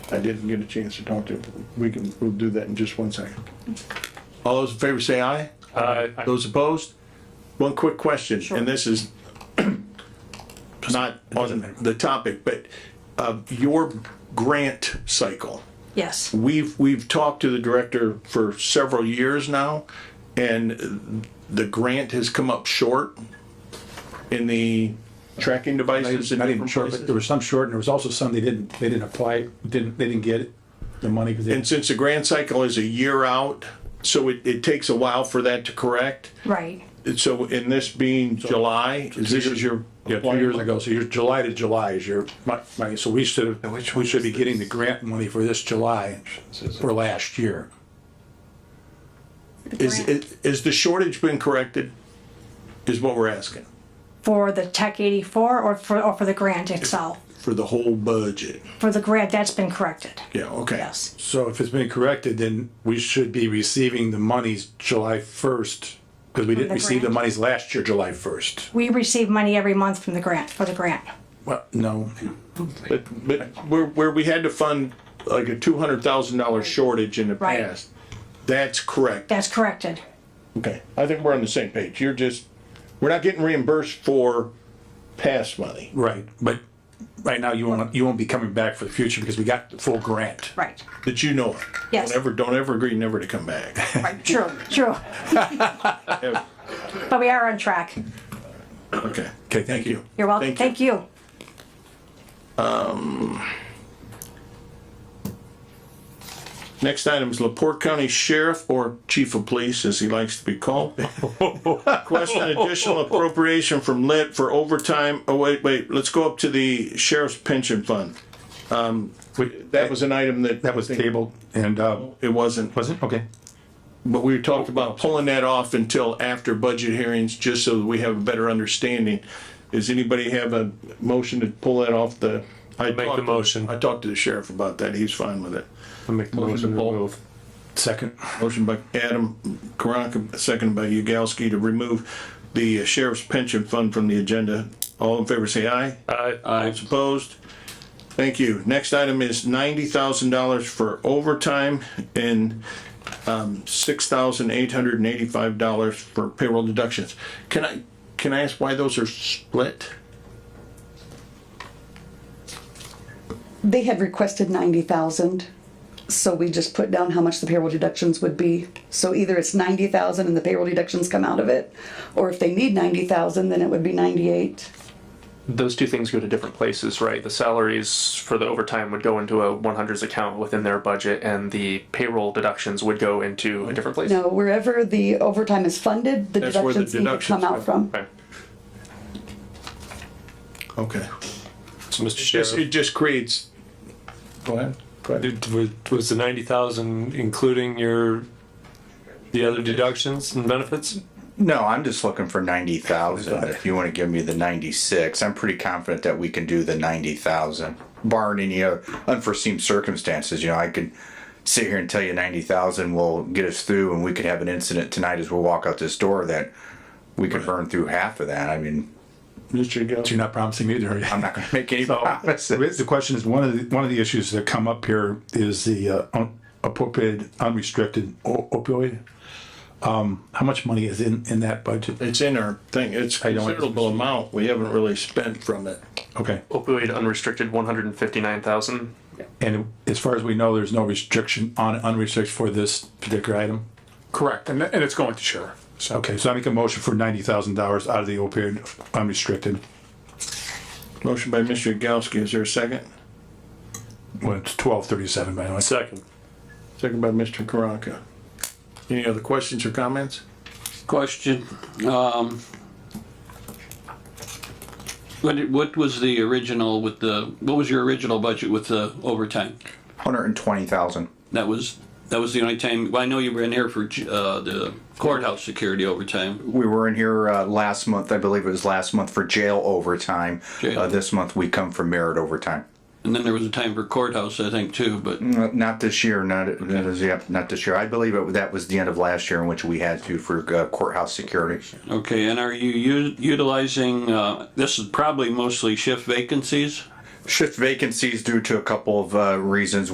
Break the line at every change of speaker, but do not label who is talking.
I didn't get a chance to talk to him. We can, we'll do that in just one second. All those in favor say aye.
Um,
Uh,
Those opposed? One quick question, and this is not on the topic, but uh, your grant cycle.
Yes.
We've, we've talked to the director for several years now, and the grant has come up short in the tracking devices. in
Not even
different
short,
places.
but there was some short, and there was also some they didn't, they didn't apply, didn't, they didn't get the money because they,
And since the grant cycle is a year out, so it, it takes a while for that to correct.
Right.
And So in this being July, is this is your.
yeah, two years ago, so you're July to July is your mon- money, so we should, have- we should be getting the grant money for this July for last year.
Is, is- is the shortage been corrected? Is what we're asking
For the Tech 84 or for, or for the grant itself?
for the whole budget.
For the grant, that's been corrected.
Yeah, okay.
Yes.
So if it's been corrected, then we should be receiving the monies July first, because we didn't
the
receive the
grant?
monies last year, July first.
We receive money every month from the grant, for the grant.
Well, no,
But, but where, where we had to fund like a two hundred thousand dollar shortage in the
Right.
past, that's correct.
That's corrected.
Okay, I think we're on the same page. You're just, we're not getting reimbursed for past money.
right, but right now you won't, you won't be coming back for the future because we got the full grant.
Right.
That you know of.
Yes.
Don't ever, don't ever agree never to come back.
Right. True. True.
Yeah,
But we are on track.
Okay.
Okay, thank you.
You're welcome. Thank you.
Next item is Laporte County Sheriff or Chief of Police, as he likes to be called. Question additional appropriation from lit for overtime. Oh, wait, wait, let's go up to the sheriff's pension fund.
We-
That was an item that.
That was tabled and, uh,
It wasn't,
was it? Okay.
but we talked about pulling that off until after budget hearings, just so that we have a better understanding. Does anybody have a motion to pull that off the? I
the
talked to-
motion.
I talked to the sheriff about that. He's fine with it.
I'll make the
Motion
motion
to
to
pull.
remove.
Second.
Motion by Adam Karanka, seconded by Yagowski to remove the sheriff's pension fund from the agenda. All in favor, say aye.
Uh,
Aye. Opposed? Thank you. Next item is ninety thousand dollars for overtime and um, six thousand eight hundred and eighty-five dollars for payroll deductions. Can I, can I ask why those are split?
They had requested ninety thousand, so we just put down how much the payroll deductions would be. So either it's ninety thousand and the payroll deductions come out of it, or if they need ninety thousand, then it would be ninety-eight.
those two things go to different places, right? The salaries for the overtime would go into a 100s account within their budget, and the payroll deductions would go into a different place.
No, wherever the overtime is funded, the
That's where the
deductions need to
deductions
come out from.
Okay.
Okay.
so Mr.
Just,
Sheriff,
it just creates. Go ahead. Go ahead.
did- was- was the ninety thousand including your, the other deductions and benefits?
No, I'm just looking for ninety thousand. If you want to give me the ninety-six, I'm pretty confident that we can do the ninety thousand, barring any other unforeseen circumstances. You know, I could sit here and tell you ninety thousand will get us through, and we could have an incident tonight as we walk out this door that we could burn through half of that. I mean,
Mr. Yagowski.
You're not promising me either.
I'm not going to make any promises.
The question is, one of the, one of the issues that come up here is the uh, un- appropriated unrestricted o- opioid. Um, how much money is in, in that budget?
It's in our thing. It's
I don't-
considerable amount. We haven't really spent from it.
Okay.
Opioid unrestricted 159,000.
And as far as we know, there's no restriction on unrestricted for this particular item?
Correct, and, and it's going to share.
Okay, so I make a motion for ninety thousand dollars out of the opioid unrestricted.
Motion by Mr. Yagowski. Is there a second?
Well, it's twelve thirty-seven, by the way.
Second.
Second by Mr. Karanka. Any other questions or comments?
Question, um, what, did- what was the original with the, what was your original budget with the overtime?
Hundred and twenty thousand.
That was, that was the only time, well, I know you were in here for, uh, the courthouse security overtime.
We were in here uh, last month. I believe it was last month for jail overtime.
Jail.
Uh, this month we come for merit overtime.
And then there was a time for courthouse, I think, too, but,
Uh, Not this year, not, that is, yep, not this year. I believe it, that was the end of last year in which we had to for uh, courthouse security.
okay, and are you u- utilizing, uh, this is probably mostly shift vacancies?
Shift vacancies due to a couple of, uh, reasons.